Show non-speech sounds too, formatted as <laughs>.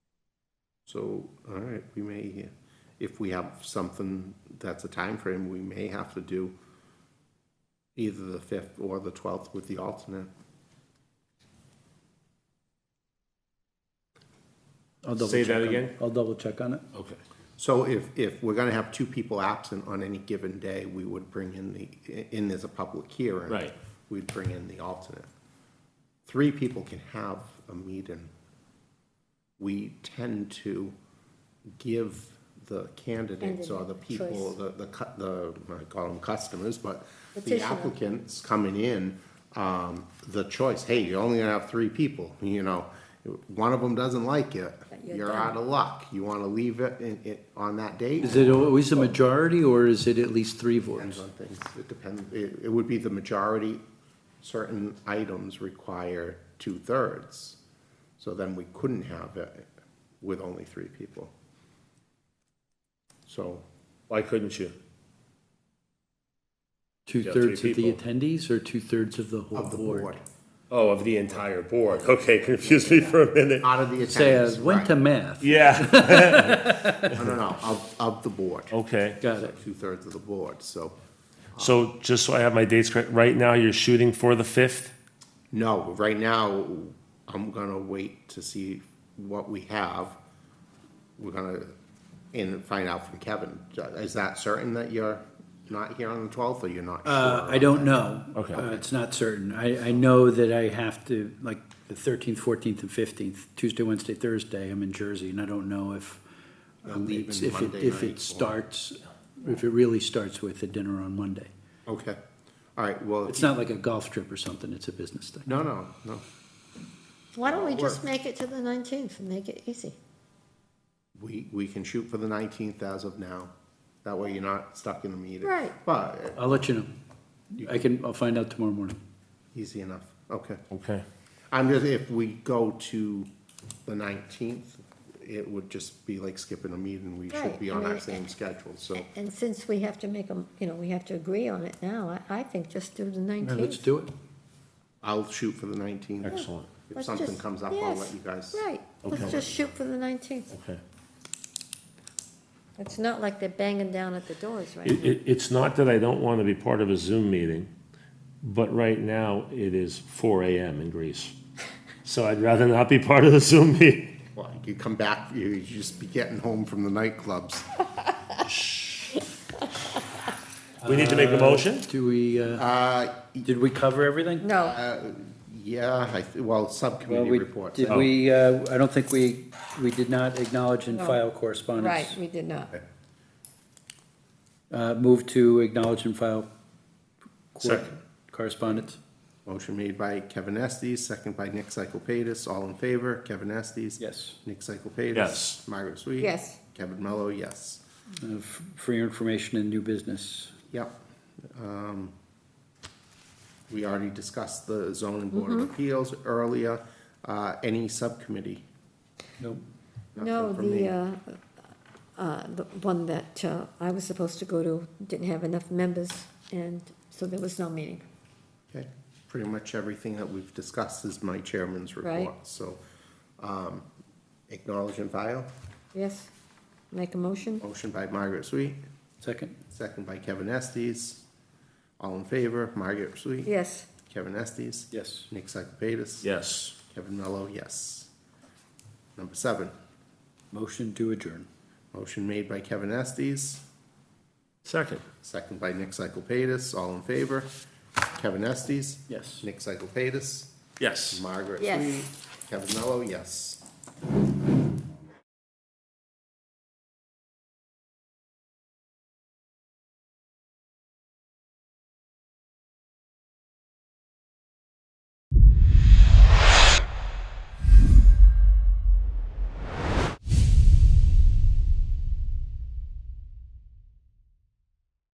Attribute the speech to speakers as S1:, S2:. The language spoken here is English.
S1: So, all right, we may, if we have something that's a time frame, we may have to do either the fifth or the twelfth with the alternate.
S2: I'll double
S3: Say
S2: check
S3: that
S2: on-
S3: again?
S2: I'll double check on it.
S3: Okay.
S1: So if, if we're gonna have two people absent on any given day, we would bring in the, in as a public hearing.
S3: Right.
S1: We'd bring in the alternate. Three people can have a meeting. We tend to give the candidates or the people,
S4: Candidate
S1: the, the, cu- the, I call them customers, but the
S4: Petitioner.
S1: applicants coming in, um, the choice, hey, you're only gonna have three people, you know? One of them doesn't like it,
S4: But you're
S1: you're
S4: done.
S1: out of luck. You wanna leave it in, it, on that date?
S2: Is it always a majority or is it at least three
S1: Depends
S2: votes?
S1: on things, it depends, it, it would be the majority, certain items require two-thirds. So then we couldn't have it with only three people. So,
S3: Why couldn't you?
S2: Two-thirds
S3: three
S2: of the
S3: people.
S2: attendees or two-thirds of the whole
S1: of the board,
S2: board?
S3: Oh, of the entire board. <laughs> Okay, confused me for a minute.
S1: out of the
S2: Say, uh, I
S1: attendance,
S2: went
S1: right,
S2: to math.
S3: Yeah.
S1: no, no, no, of, of the board,
S3: <laughs> Okay.
S2: Oh, Got it.
S1: two-thirds of the board, so,
S3: So just so I have my dates correct, right now you're shooting for the fifth?
S1: no, right now, I'm gonna wait to see what we have. We're gonna, and find out from Kevin, is that certain that you're not here on the twelfth, or you're not sure?
S2: Uh, I don't know.
S3: Okay.
S2: Uh, It's not certain. I, I know that I have to, like, the thirteenth, fourteenth, and fifteenth, Tuesday, Wednesday, Thursday, I'm in Jersey, and I don't know if, um,
S1: leaving
S2: it's- if it,
S1: Monday
S2: if
S1: night or-
S2: it starts, if it really starts with a dinner on Monday.
S1: Okay, all right, well,
S2: It's
S1: if-
S2: not like a golf trip or something, it's a business thing.
S1: no, no, no,
S4: Why don't we
S1: Uh, Work.
S4: just make it to the nineteenth and make it easy?
S1: we, we can shoot for the nineteenth as of now. That way you're not stuck in a meeting.
S4: Right.
S1: But, eh,
S2: I'll let you know. I can, I'll find out tomorrow morning.
S1: easy enough, okay.
S3: Okay.
S1: I'm just, if we go to the nineteenth, it would just be like skipping a meeting, we should
S4: Right,
S1: be
S4: I
S1: on our
S4: mean,
S1: same
S4: eh,
S1: schedule, so.
S4: A- And since we have to make them, you know, we have to agree on it now, I, I think just do the
S2: All right, let's
S4: nineteenth.
S2: do it.
S1: I'll shoot for the nineteenth.
S3: Excellent.
S1: If something comes up, I'll let you guys.
S4: Right, let's just shoot for the nineteenth.
S3: Okay.
S4: It's not like they're banging down at the doors right
S3: It,
S4: now.
S3: it, it's not that I don't want to be part of a Zoom meeting, but right now it is four AM in Greece. So I'd rather not be part of the Zoom meeting.
S1: Well, you come back, you, you just be getting home from the nightclubs.
S3: We need to make a motion?
S2: Do we, uh,
S1: Uh,
S2: did we cover everything?
S4: No,
S1: yeah, I, th- well,
S2: Well,
S1: subcommittee
S2: we,
S1: reports.
S2: did
S1: I-
S2: we, uh, I don't think we, we did not acknowledge and
S4: No.
S2: file correspondence.
S4: right, we did not.
S2: Uh, move to acknowledge and file. cor-
S3: Second.
S2: Correspondence.
S1: Motion made by Kevin Estes, second by Nick Cyclepatis, all in favor, Kevin Estes?
S2: Yes.
S1: Nick Cyclepatis?
S3: Yes.
S1: Margaret Sweet?
S4: Yes.
S1: Kevin Mello, yes.
S2: Uh, f- For your information and new business.
S1: Yep. Um, We already discussed the zoning board
S4: Mm-hmm.
S1: of appeals earlier, uh, any subcommittee?
S2: Nope.
S4: No,
S1: Nothing from me.
S4: the, uh, uh, the one that uh, I was supposed to go to didn't have enough members, and so there was no meeting.
S1: Okay, pretty much everything that we've discussed is my chairman's
S4: Right.
S1: report, so, um, acknowledge and file,
S4: Yes, make a motion?
S1: motion by Margaret Sweet,
S2: Second.
S1: second by Kevin Estes, all in favor, Margaret Sweet?
S4: Yes,
S1: Kevin Estes?
S2: Yes.
S1: Nick Cyclepatis?
S3: Yes.
S1: Kevin Mello, yes. Number seven,
S2: Motion to adjourn.
S1: motion made by Kevin Estes,
S3: Second.
S1: second by Nick Cyclepatis, all in favor? Kevin Estes?
S2: Yes.
S1: Nick Cyclepatis?
S3: Yes.
S1: Margaret
S4: Yes.
S1: Sweet? Kevin Mello, yes.